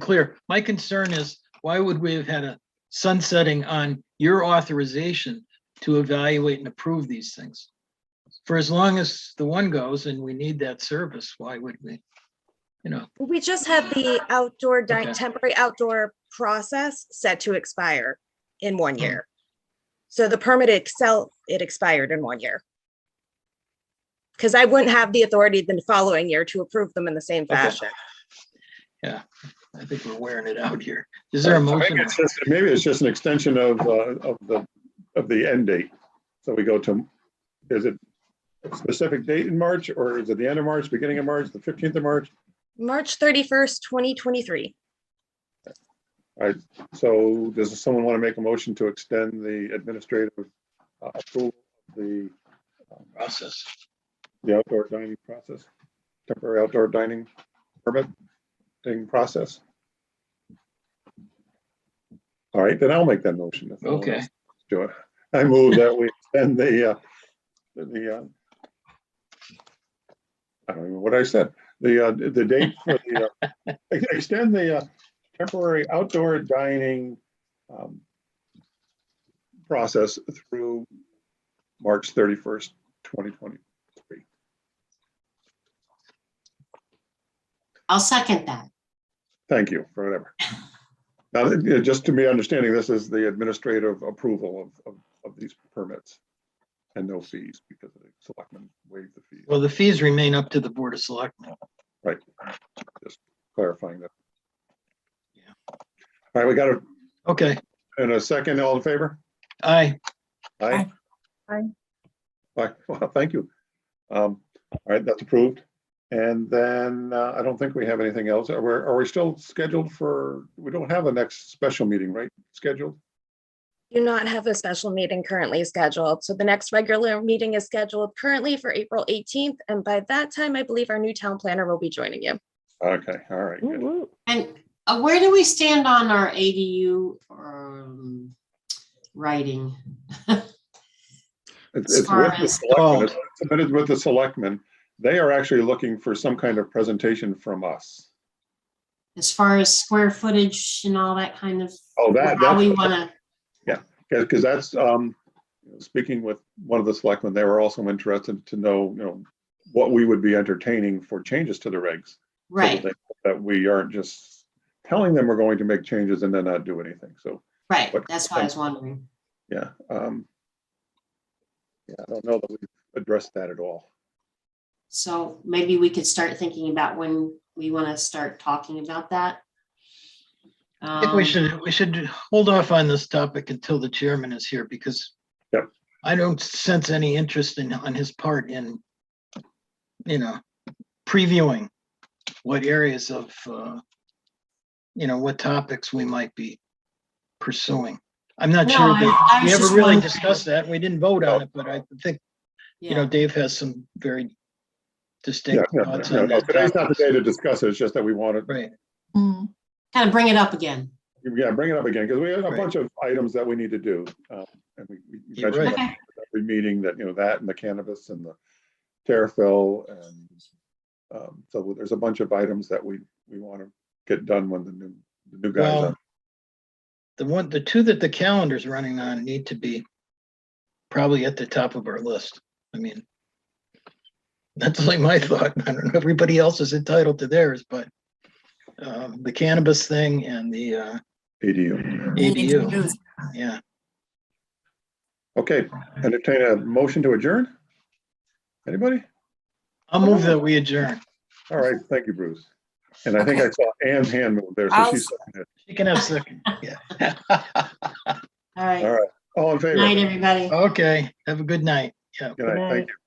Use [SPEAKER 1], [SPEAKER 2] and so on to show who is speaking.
[SPEAKER 1] clear. My concern is, why would we have had a sunsetting on your authorization to evaluate and approve these things? For as long as the one goes and we need that service, why would we? You know,
[SPEAKER 2] We just have the outdoor, di-
[SPEAKER 1] Okay.
[SPEAKER 2] temporary outdoor process set to expire in one year. So the permit itself, it expired in one year. Because I wouldn't have the authority the following year to approve them in the same fashion.
[SPEAKER 1] I think we're wearing it out here. Is there a
[SPEAKER 3] I think
[SPEAKER 1] motion?
[SPEAKER 3] it's just- Maybe it's just an extension of, uh, of the, of the end date. So we go to, is it a specific date in March or is it the end of March, beginning of March, the 15th of March?
[SPEAKER 2] March thirty-first, twenty twenty-three.
[SPEAKER 3] So does someone want to make a motion to extend the administrative uh, approval of the,
[SPEAKER 1] Process.
[SPEAKER 3] the outdoor dining process? Temporary outdoor dining permit thing process? All right, then I'll make that motion. if no one
[SPEAKER 1] Okay,
[SPEAKER 3] else wants to Do it. I move that we extend the, uh, the, uh, I don't know what I said, the, uh, the date for the, uh, ex- extend the, uh, temporary outdoor dining, um, process through March thirty-first, twenty twenty.
[SPEAKER 4] I'll second that.
[SPEAKER 3] Thank you for whatever. Now, that- yeah, just to be understanding, this is the administrative approval of, of, of these permits and no fees because the selectmen waived the fees,
[SPEAKER 1] well, the fees remain up to the Board of Selectmen.
[SPEAKER 3] clarifying that.
[SPEAKER 1] Yeah.
[SPEAKER 3] All right, we got a,
[SPEAKER 1] Okay,
[SPEAKER 3] and a second, all in favor?
[SPEAKER 1] aye,
[SPEAKER 3] Aye.
[SPEAKER 2] Aye.
[SPEAKER 3] Aye, well, thank you. Um, all right, that's approved. And then uh, I don't think we have anything else. Are we, are we still scheduled for, we don't have a next special meeting, right? Scheduled?
[SPEAKER 2] Do not have a special meeting currently scheduled, so the next regular meeting is scheduled currently for April eighteenth, and by that time, I believe our new town planner will be joining you.
[SPEAKER 3] Okay, all right. good.
[SPEAKER 4] And uh, where do we stand on our ADU um, writing?
[SPEAKER 3] It's
[SPEAKER 4] as
[SPEAKER 3] it's
[SPEAKER 4] far
[SPEAKER 3] with the
[SPEAKER 4] as-
[SPEAKER 3] selectmen,
[SPEAKER 1] Oh.
[SPEAKER 3] it's submitted with the selectmen. They are actually looking for some kind of presentation from us.
[SPEAKER 4] As far as square footage and all that kind of,
[SPEAKER 3] Oh, that,
[SPEAKER 4] how we
[SPEAKER 3] that's,
[SPEAKER 4] want
[SPEAKER 3] because that's, um, speaking with one of the selectmen, they were also interested to know, you know, what we would be entertaining for changes to the regs.
[SPEAKER 4] to,
[SPEAKER 3] so that
[SPEAKER 4] right,
[SPEAKER 3] they- That we aren't just telling them we're going to make changes and then not do anything. So,
[SPEAKER 4] right.
[SPEAKER 3] what-
[SPEAKER 4] That's what I was wondering.
[SPEAKER 3] yeah. um, Yeah, I don't know that we've addressed that at all.
[SPEAKER 4] So maybe we could start thinking about when we want to start talking about that.
[SPEAKER 1] I think we
[SPEAKER 4] Um,
[SPEAKER 1] should, we should hold off on this topic until the chairman is here because
[SPEAKER 3] Yep.
[SPEAKER 1] I don't sense any interest in, on his part in, you know, previewing what areas of, uh, you know, what topics we might be pursuing. I'm not
[SPEAKER 4] No,
[SPEAKER 1] sure
[SPEAKER 4] I-
[SPEAKER 1] that
[SPEAKER 4] I
[SPEAKER 1] we
[SPEAKER 4] was
[SPEAKER 1] ever
[SPEAKER 4] just
[SPEAKER 1] really
[SPEAKER 4] wondering.
[SPEAKER 1] discussed that. We didn't vote on it, but I think, you know,
[SPEAKER 4] yeah.
[SPEAKER 1] Dave has some very
[SPEAKER 3] Yeah,
[SPEAKER 1] distinct
[SPEAKER 3] yeah,
[SPEAKER 1] thoughts
[SPEAKER 3] yeah,
[SPEAKER 1] on
[SPEAKER 3] no,
[SPEAKER 1] that.
[SPEAKER 3] Today's not the
[SPEAKER 1] topic.
[SPEAKER 3] day to discuss it. It's just that we wanted,
[SPEAKER 1] Right,
[SPEAKER 4] Kind of bring it up again.
[SPEAKER 3] Yeah, bring it up again, because we have a
[SPEAKER 1] Right.
[SPEAKER 3] bunch of items that we need to do. um, And we we
[SPEAKER 1] You're
[SPEAKER 3] mentioned
[SPEAKER 1] right.
[SPEAKER 4] Okay.
[SPEAKER 3] every meeting that, you know, that and the cannabis and the terrafill and um, so there's a bunch of items that we, we want to get done when the new, the new guys.
[SPEAKER 1] well,
[SPEAKER 3] are-
[SPEAKER 1] the one, the two that the calendar's running on need to be probably at the top of our list. I mean, that's like my thought. I don't know, everybody else is entitled to theirs, but um, the cannabis thing and the uh,
[SPEAKER 3] ADU.
[SPEAKER 1] ADU, yeah.
[SPEAKER 3] Okay, entertain a motion to adjourn? Anybody?
[SPEAKER 1] I'll move that we adjourn.
[SPEAKER 3] All right, thank you, Bruce. And I think I saw Anne's hand move there, so
[SPEAKER 5] I'll-
[SPEAKER 3] she's, seconded it.
[SPEAKER 1] You can have second. Yeah.
[SPEAKER 4] All
[SPEAKER 3] all
[SPEAKER 4] right.
[SPEAKER 3] right, all in
[SPEAKER 4] Good Night,
[SPEAKER 3] favor?
[SPEAKER 4] everybody.
[SPEAKER 1] Okay, have a good night. Yeah.
[SPEAKER 3] Good night, thank you.